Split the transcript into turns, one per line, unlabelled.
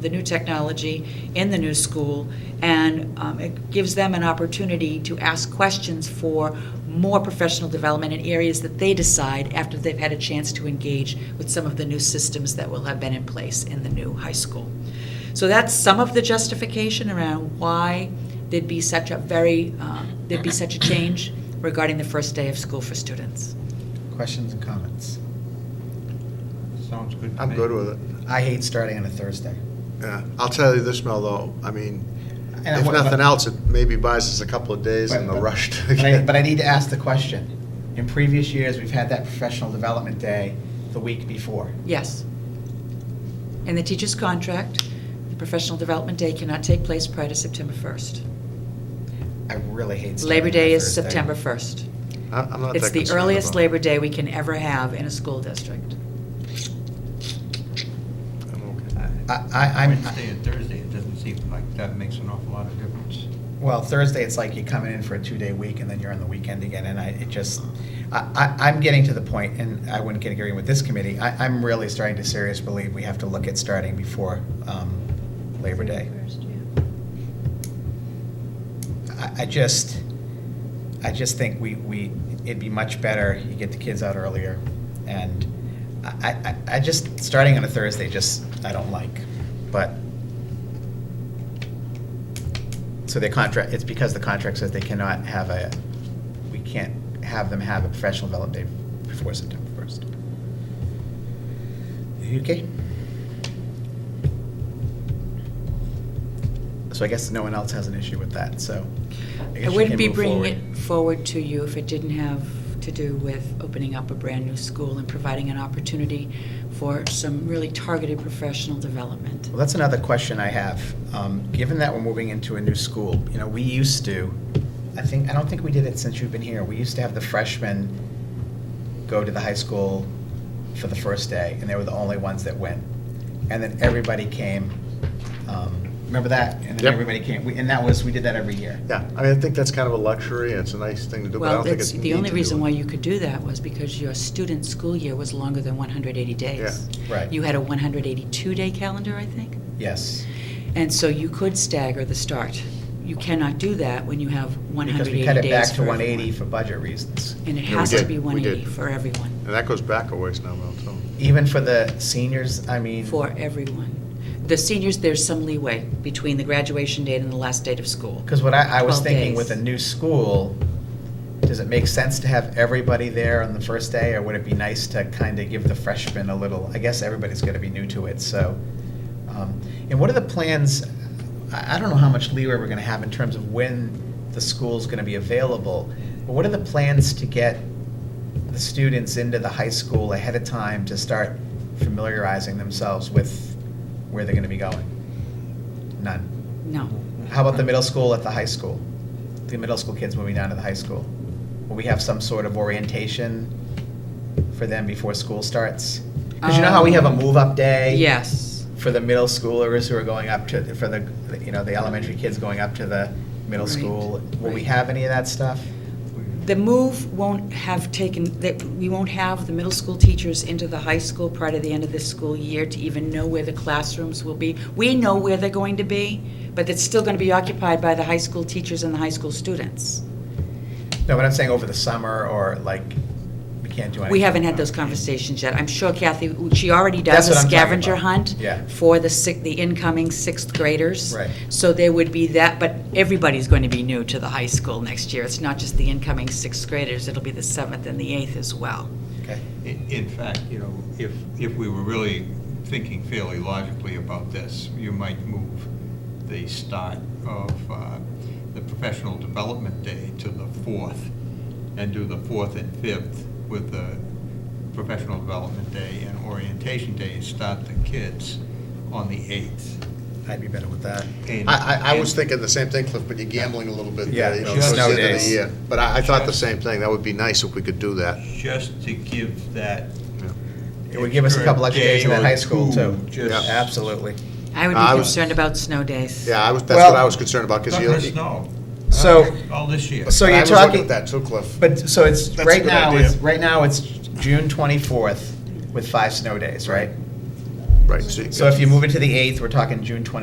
the new technology in the new school, and um, it gives them an opportunity to ask questions for more professional development in areas that they decide after they've had a chance to engage with some of the new systems that will have been in place in the new high school. So that's some of the justification around why there'd be such a very, um, there'd be such a change regarding the first day of school for students.
Questions and comments?
Sounds good to me.
I'm good with it.
I hate starting on a Thursday.
Yeah, I'll tell you this, Mel, though, I mean,
And I-
if
but-
nothing else, it maybe buys us a couple of days
but-
in the
but-
rush to
But I,
get.
but I need to ask the question. In previous years, we've had that professional development day the week before.
Yes. In the teacher's contract, the professional development day cannot take place prior to September 1st.
I really hate starting
Labor
on a
Day is
Thursday.
September 1st.
I- I'm not that concerned about it.
It's the earliest Labor Day we can ever have in a school district.
I'm okay.
I, I, I'm,
Wednesday and Thursday, it doesn't seem like that makes an awful lot of difference.
well, Thursday, it's like you're coming in for a two-day week and then you're on the weekend again, and I, it just, I, I, I'm getting to the point, and I wouldn't get agreeing with this committee, I, I'm really starting to seriously believe we have to look at starting before, um, Labor Day. I, I just, I just think we, we, it'd be much better, you get the kids out earlier, and I, I, I- I just, starting on a Thursday, just, I don't like, but, so their contract, it's because the contract says they cannot have a, we can't have them have a professional development day before September first. Okay? So I guess no one else has an issue with that, so. guess
I
you
wouldn't
can
be
move
bringing
forward.
it forward to you if it didn't have to do with opening up a brand-new school and providing an opportunity for some really targeted professional development.
Well, that's another question I have. Um, Given that we're moving into a new school, you know, we used to, I think, I don't think we did it since you've been here. We used to have the freshmen go to the high school for the first day, and they were the only ones that went. And then everybody came, um, remember that? And then
Yep.
everybody came, We- and that was, we did that every year.
Yeah, I mean, I think that's kind of a luxury, and it's a nice thing to do, but I
Well,
don't think
that's,
it's.
the only reason why you could do that was because your student school year was longer than 180 days.
Yeah. Right.
You had a 182-day calendar, I think,
Yes.
and so you could stagger the start. You cannot do that when you have 180 days
Because we cut it back to
for
180 for
everyone.
budget reasons.
And it
Yeah, we
has to
did.
be
We
180
did.
for everyone,
And that goes back a ways now, Mel, too.
Even for the seniors, I mean.
for everyone. The seniors, there's some leeway between the graduation date and the last date of school.
Because what I, I was
12
thinking
days.
with a new school, does it make sense to have everybody there on the first day? Or would it be nice to kind of give the freshmen a little, I guess everybody's going to be new to it, so. um, And what are the plans, I, I don't know how much leeway we're going to have in terms of when the school's going to be available. But what are the plans to get the students into the high school ahead of time to start familiarizing themselves with where they're going to be going? None.
No.
How about the middle school at the high school? The middle school kids moving down to the high school? Will we have some sort of orientation for them before school starts? Because you know how we have a move-up day?
Um, Yes.
For the middle schoolers who are going up to, for the, you know, the elementary kids going up to the middle
Right,
school? Will we
right.
have any of that stuff?
The move won't have taken, that, we won't have the middle school teachers into the high school prior to the end of this school year to even know where the classrooms will be. We know where they're going to be, but it's still going to be occupied by the high school teachers and the high school students.
No, but I'm saying over the summer or like, we can't do anything.
We haven't had those conversations yet. I'm sure Kathy, she already does
That's
a
what I'm talking
scavenger
about.
hunt
Yeah.
for the sick, the incoming sixth graders.
Right.
So there would be that, but everybody's going to be new to the high school next year. It's not just the incoming sixth graders, it'll be the seventh and the eighth as well.
Okay.
I- In fact, you know, if, if we were really thinking fairly logically about this, you might move the start of uh, the professional development day to the fourth, and do the fourth and fifth with the professional development day and orientation day, and start the kids on the eighth.
I'd be better with that.
And-
I, I, I was
and-
thinking the same thing, Cliff, but you're gambling a little bit
Yeah,
there, you know,
just
towards the end of
nowadays.
the year. But I, I thought the
Just-
same thing, that would be nice if we could do that.
Just to give that.
Yeah.
It would give us a couple extra days in
day
that
or
high school
two,
too.
Just.
Yeah.
Absolutely.
I would
I
be
was-
concerned about snow days.
Yeah, I was, that's what
Well-
I was concerned about, because
Not
you.
gonna snow.
So-
All this year.
So
I
you're
was looking
talking.
at That too, Cliff.
But, so it's,
That's a
right
good
now,
idea.
it's, right now, it's June 24th with five snow days, right?
Right, so you
So if you move it to the 8th, we're talking June 20